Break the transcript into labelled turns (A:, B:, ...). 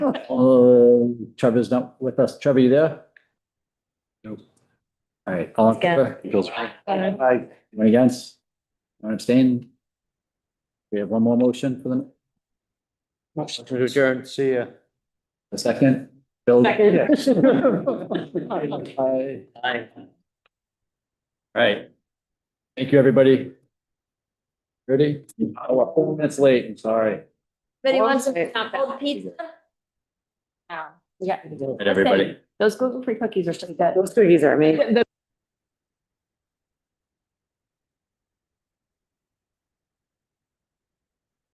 A: Uh, Trevor's not with us. Trevor, you there?
B: Nope.
A: All right, all in
C: Yeah.
A: favor?
B: Feels
C: Aye.
A: Aye. Anyone against? Anyone abstain? We have one more motion for the,
D: Motion to adjourn, see ya.
A: a second. Bill?
C: Second.
A: Aye.
D: Aye. Right.
A: Thank you, everybody. Ready? Oh, we're four minutes late, I'm sorry.
C: But he wants some cold pizza. Yeah.
D: And everybody.
C: Those gluten-free cookies are so good.
E: Those cookies are amazing.
C: The